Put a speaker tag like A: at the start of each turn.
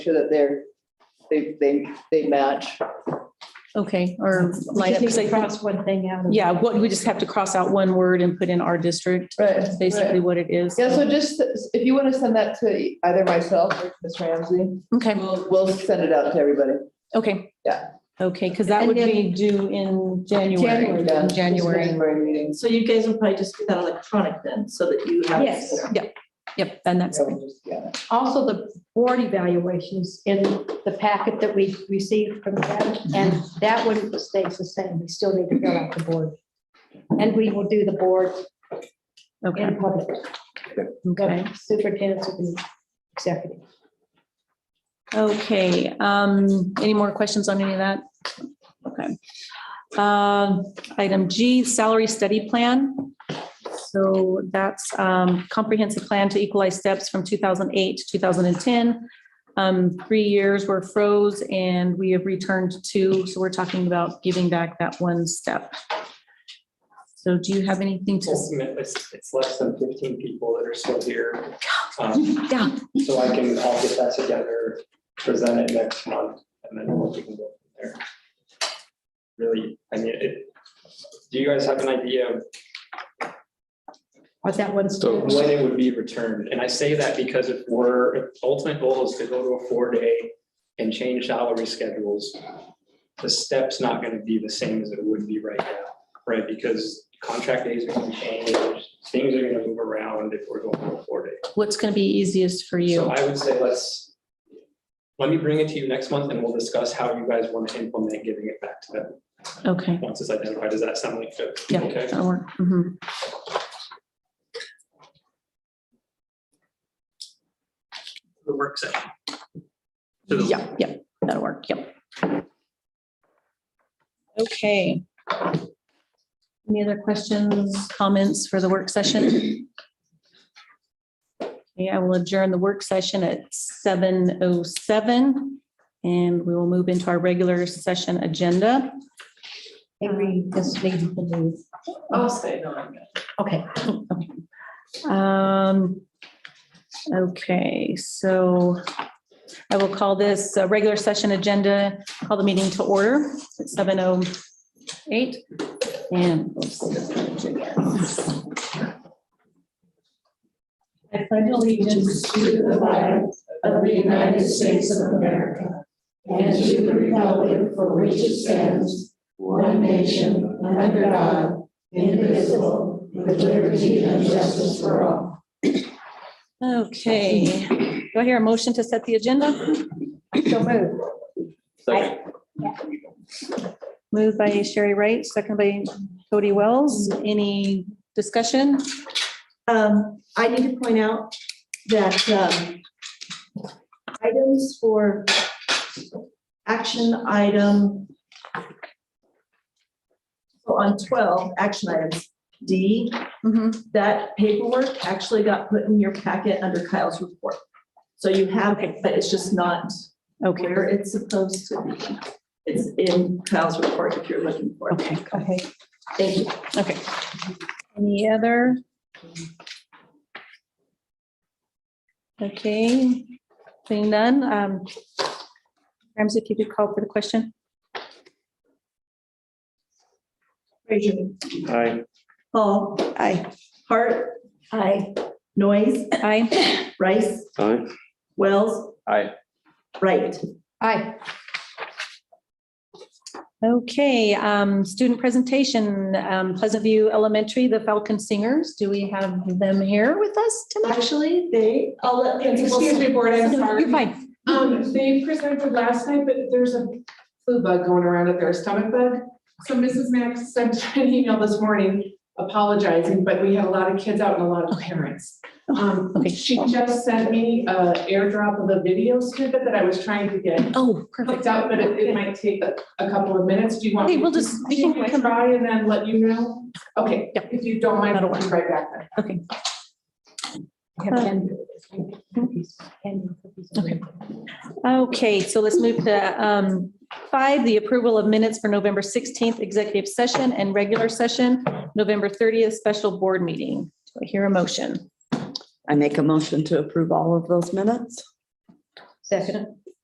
A: sure that they're, they, they, they match.
B: Okay, or line up,
C: Just need to
B: 'cause I-
C: cross one thing out. of-
B: yeah, what, we just have to cross out one word and put in our district,
A: Right.
B: That's basically what it is.
A: Yeah, so just, if you want to send that to either myself or Ms. Ramsey,
B: Okay,
A: we'll, we'll send it out to everybody.
B: okay.
A: Yeah.
B: Okay, because that would be due in January,
A: yeah,
B: in
A: just
B: January.
A: January meetings.
D: So you guys will probably just do that electronic then, so that you have.
C: Yes.
B: Yep, and that's,
A: Yeah, we'll just- yeah.
C: Also, the board evaluations in the packet that we received from them, and that one stays the same. We still need to fill out the board. And we will do the board
B: okay,
C: in public.
B: okay.
C: Superintendent's will be executive.
B: Okay, um, any more questions on any of that? Okay. Um, item G, salary study plan. So that's, um, comprehensive plan to equalize steps from two thousand eight to two thousand and ten. Um, three years were froze and we have returned to two, so we're talking about giving back that one step. So do you have anything to,
E: Ultimately, it's, it's less than fifteen people that are still here. Um,
B: yeah,
E: So I can, I'll get that together, present it next month, and then we'll we can go from there. Really, I mean, it, do you guys have an idea of
C: Or that one's.
E: So when it would be returned, and I say that because if we're, if the ultimate goal is to go to a four-day and change salary schedules, the step's not gonna be the same as it would be right now, right? Because contract days are gonna change, things are gonna move around if we're going to a four-day.
B: what's gonna be easiest for
E: So
B: you?
E: I would say let's, let me bring it to you next month and we'll discuss how you guys want to implement giving it back to them.
B: Okay,
E: Once it's identified, does that sound like good?
B: Yeah.
E: Okay.
B: that'll work. Mhm.
E: The work session. To the-
B: Yeah, yeah, that'll work, yep. Okay. Any other questions, comments for the work session? Yeah, I will adjourn the work session at seven oh seven. And we will move into our regular session agenda.
C: Maybe this needs to move.
D: I'll stay on.
C: Okay.
B: Um, okay, so I will call this uh, regular session agenda, call the meeting to order at seven oh eight. And we'll see this page again.
C: I pledge allegiance to the flag of the United States of America and to the republic for which it stands, one nation, under God, indivisible, with liberty and justice for all.
B: Okay, do I hear a motion to set the agenda?
C: So moved.
B: Moved by Sherry Wright, second by Cody Wells. Any discussion?
D: Um, I need to point out that, um, items for action item. So on twelve, action items, D,
C: Mm-hmm.
B: Mhm.
D: that paperwork actually got put in your packet under Kyle's report. So you have it, but it's just not
B: Okay,
D: where it's supposed to be. It's in Kyle's report if you're looking for it.
B: okay,
C: Okay.
D: Thank you.
B: okay. Any other? Okay, seeing none. um, Ramsey, if you could call for the question.
D: Frazier.
E: Aye.
D: Paul. Aye. Hart. Aye. Noise.
B: Aye.
D: Rice.
E: Aye.
D: Wells.
E: Aye.
D: Right.
C: Aye.
B: Okay, um, student presentation, um, Pleasant View Elementary, the Falcon Singers. Do we have them here with us tonight?
D: Actually, they, I'll let principal.
F: Excuse me, board, I'm
B: No, You're
F: sorry.
B: fine.
F: Um, they presented last night, but there's a flu bug going around at their stomach bug. So Mrs. Max sent an email this morning apologizing, but we had a lot of kids out and a lot of parents. Um,
B: Okay.
F: she just sent me a airdrop of a video snippet that I was trying to get
B: Oh, perfect.
F: clicked out, but it, it might take a, a couple of minutes. Do you want?
B: Okay,
F: me
B: we'll
F: to-
B: just- we
F: Should
B: can
F: I
B: come-
F: Try and then let you know? Okay,
B: Yep.
F: if you don't mind,
B: That'll
F: I'll be right back then.
B: Okay.
C: Okay.
B: Okay, so let's move to um, five, the approval of minutes for November 16th, executive session and regular session, November 30th, special board meeting. Do I hear a motion?
G: I make a motion to approve all of those minutes.
C: Second.